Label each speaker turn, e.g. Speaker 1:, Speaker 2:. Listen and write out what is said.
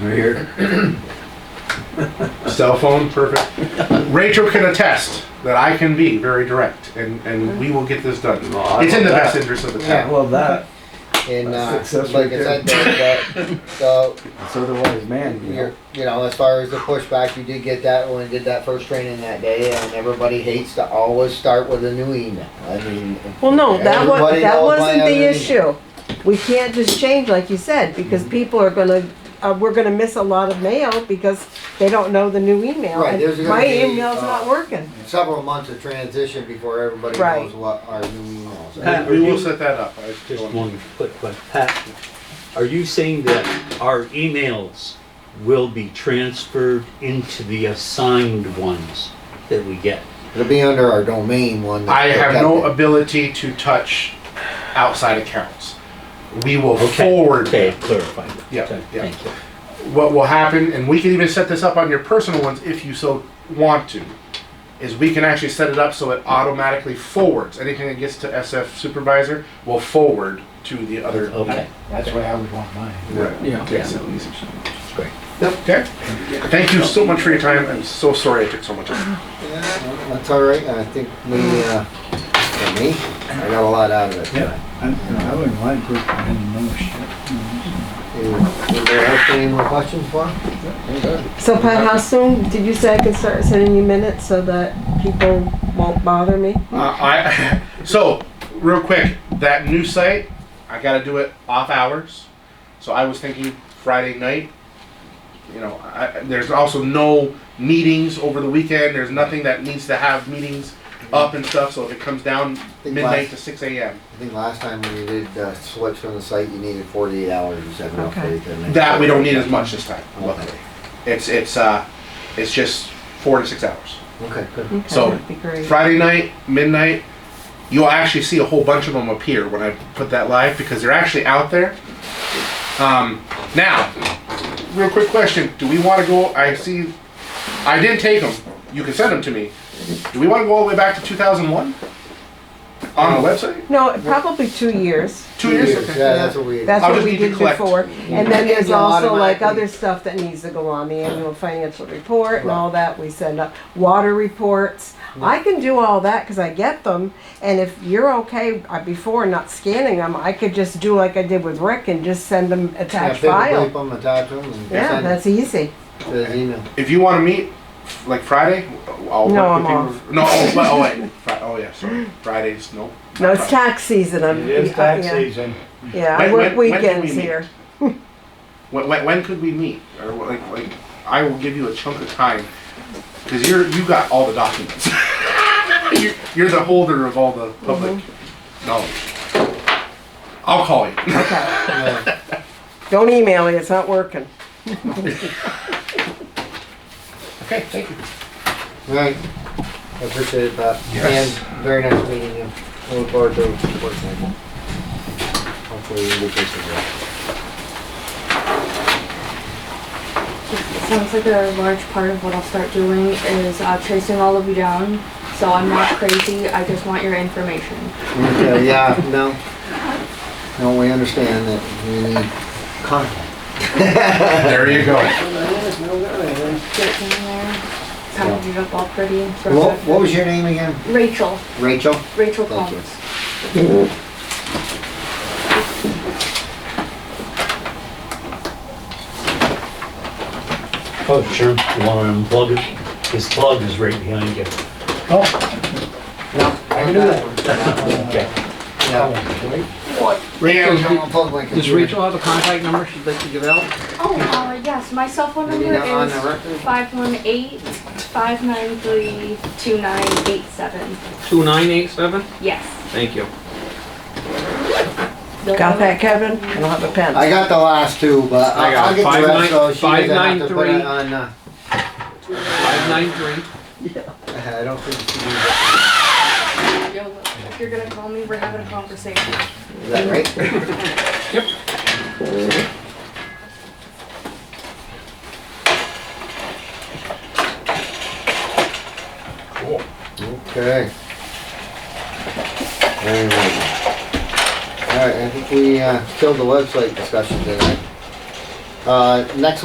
Speaker 1: Right here.
Speaker 2: Cell phone, perfect. Rachel can attest that I can be very direct, and, and we will get this done.
Speaker 1: No, I
Speaker 2: It's in the
Speaker 1: love
Speaker 2: best
Speaker 1: that.
Speaker 2: interest of the
Speaker 3: Yeah,
Speaker 2: town.
Speaker 3: well, that,
Speaker 4: And uh,
Speaker 3: That's success
Speaker 4: like
Speaker 3: right
Speaker 4: I said, the, the, the,
Speaker 3: it's otherwise man, you know.
Speaker 4: you're, you know, as far as the pushback, you did get that when we did that first training that day, and everybody hates to always start with a new email. I mean,
Speaker 5: Well, no, that was,
Speaker 4: Everybody
Speaker 5: that
Speaker 4: knows my
Speaker 5: wasn't
Speaker 4: other-
Speaker 5: the issue. We can't just change, like you said, because
Speaker 4: Mm-hmm.
Speaker 5: people are gonna, uh, we're gonna miss a lot of mail because they don't know the new email.
Speaker 4: Right,
Speaker 5: and
Speaker 4: there's gonna
Speaker 5: My
Speaker 4: be,
Speaker 5: email's
Speaker 4: uh,
Speaker 5: not working.
Speaker 4: several months of transition before everybody
Speaker 5: Right.
Speaker 4: knows what our new emails are.
Speaker 6: Pat,
Speaker 2: We
Speaker 6: are
Speaker 2: will
Speaker 6: you,
Speaker 2: set that up. I
Speaker 6: just
Speaker 2: feel-
Speaker 6: one quick question. Pat, are you saying that our emails will be transferred into the assigned ones that we get?
Speaker 4: It'll be under our domain one.
Speaker 2: I
Speaker 4: that's
Speaker 2: have no
Speaker 4: protected.
Speaker 2: ability to touch outside accounts. We will
Speaker 6: Okay,
Speaker 2: forward
Speaker 6: Okay, clarify that.
Speaker 2: Yeah,
Speaker 6: Okay,
Speaker 2: yeah.
Speaker 6: Thank you.
Speaker 2: what will happen, and we can even set this up on your personal ones if you so want to, is we can actually set it up so it automatically forwards. Anything that gets to SF supervisor will forward to the other.
Speaker 6: Okay,
Speaker 3: That's why I would want mine.
Speaker 2: Right.
Speaker 3: Yeah.
Speaker 2: Okay, so easy.
Speaker 6: that's great.
Speaker 2: Okay. Thank you so much for your time. I'm so sorry I took so much. time.
Speaker 4: Yeah, That's all right, I think we, uh, for me, I got a lot out of it.
Speaker 3: Yeah, I, you know, I wouldn't mind group any more shit. you know.
Speaker 4: Anybody else have any more questions for him?
Speaker 5: So Pat, how soon, did you say I could start sending you minutes so that people won't bother me?
Speaker 2: Uh, I, so, real quick, that new site, I gotta do it off hours. So I was thinking Friday night. You know, I, I- there's also no meetings over the weekend. There's nothing that needs to have meetings up and stuff. So if it comes down midnight to 6 a.m.,
Speaker 4: I think last time when you did uh, switch from the site, you needed forty-eight hours, you said enough
Speaker 5: Okay.
Speaker 4: faith in it.
Speaker 2: that we don't need as much this time. Luckily,
Speaker 4: Okay,
Speaker 2: it's it's uh, it's just four to six hours.
Speaker 4: Okay, good.
Speaker 5: Okay,
Speaker 2: So,
Speaker 5: that'd be great.
Speaker 2: Friday night, midnight, you'll actually see a whole bunch of them appear when I put that live because they're actually out there. Um, now, real quick question: Do we want to go? I see. I did take them. You can send them to me. Do we want to go all the way back to 2001 on the website?
Speaker 5: No, probably two years.
Speaker 2: Two years. Okay.
Speaker 4: Yeah, that's what we.
Speaker 5: That's
Speaker 2: I'll
Speaker 5: what
Speaker 2: just
Speaker 5: we
Speaker 2: need to
Speaker 5: did
Speaker 2: collect.
Speaker 5: before. And then there's
Speaker 4: You'll
Speaker 5: also like
Speaker 4: automatically-
Speaker 5: other stuff that needs to go on, the annual financial report and
Speaker 4: Right.
Speaker 5: all that, we send up, water reports. I can do all that, cause I get them, and if you're okay, uh, before not scanning them, I could just do like I did with Rick and just send them
Speaker 4: Yeah,
Speaker 5: attached
Speaker 4: paper clip
Speaker 5: file.
Speaker 4: 'em, attach 'em, and
Speaker 5: Yeah,
Speaker 4: send it
Speaker 5: that's easy.
Speaker 4: to his email.
Speaker 2: If you want to meet, like Friday, I'll
Speaker 5: No,
Speaker 2: work with
Speaker 5: I'm
Speaker 2: people. No, oh, but- oh wait, Fri- oh yeah, sorry. Fridays, no.
Speaker 5: No, it's tax season, I'm.
Speaker 3: It is
Speaker 5: uh,
Speaker 3: tax
Speaker 5: yeah.
Speaker 3: season.
Speaker 5: Yeah,
Speaker 2: When-
Speaker 5: I work
Speaker 2: when- when can we
Speaker 5: weekends
Speaker 2: meet?
Speaker 5: here.
Speaker 2: When, when, when could we meet? Or what- like, like, I will give you a chunk of time because you're you got all the documents. you're, you're the holder of all the public knowledge. I'll call you.
Speaker 5: Okay,
Speaker 4: Yeah.
Speaker 5: don't email me, it's not working.
Speaker 2: Okay, thank you.
Speaker 4: All right, I appreciate it, Bob.
Speaker 2: Yes.
Speaker 4: And very nice meeting you. I Look forward to working with you. Hopefully we can get this as well.
Speaker 7: It sounds like a large part of what I'll start doing is uh, tracing all of you down. So I'm not crazy. I just want your information.
Speaker 4: Okay, yeah, no. No, we understand that we need contact.
Speaker 2: There you go.
Speaker 7: Get it in there, package it up all pretty. and throw it
Speaker 4: What,
Speaker 7: back.
Speaker 4: what was your name again?
Speaker 7: Rachel.
Speaker 4: Rachel?
Speaker 7: Rachel
Speaker 4: Thank you.
Speaker 7: Combs.
Speaker 6: Oh, sure, you wanna unplug it? His plug is right behind you.
Speaker 4: No, I can do that.
Speaker 6: Okay.
Speaker 4: Rachel,
Speaker 8: Rachel,
Speaker 4: don't unplug my computer.
Speaker 8: Does Rachel have a contact number she'd like to give out?
Speaker 7: Oh, uh, yes, my cell phone
Speaker 4: Maybe
Speaker 7: number
Speaker 4: not on the
Speaker 7: is
Speaker 4: record.
Speaker 7: 518-593-2987.
Speaker 8: 2987?
Speaker 7: Yes.
Speaker 8: Thank you.
Speaker 5: Got that, Kevin? I don't have a pen.
Speaker 4: I got the last two, but
Speaker 8: I
Speaker 4: I'll I'll get the
Speaker 8: got five
Speaker 4: rest,
Speaker 8: nine-
Speaker 4: so she
Speaker 8: five
Speaker 4: doesn't have to put
Speaker 8: nine three.
Speaker 4: it on, uh,
Speaker 8: 593?
Speaker 4: I don't think she needs
Speaker 7: Yo, if you're gonna call me, we're having a conversation.
Speaker 4: it. Is that right?
Speaker 2: Cool.
Speaker 4: Okay. Very well. All right, I think we, uh, killed the website discussion tonight. Uh, next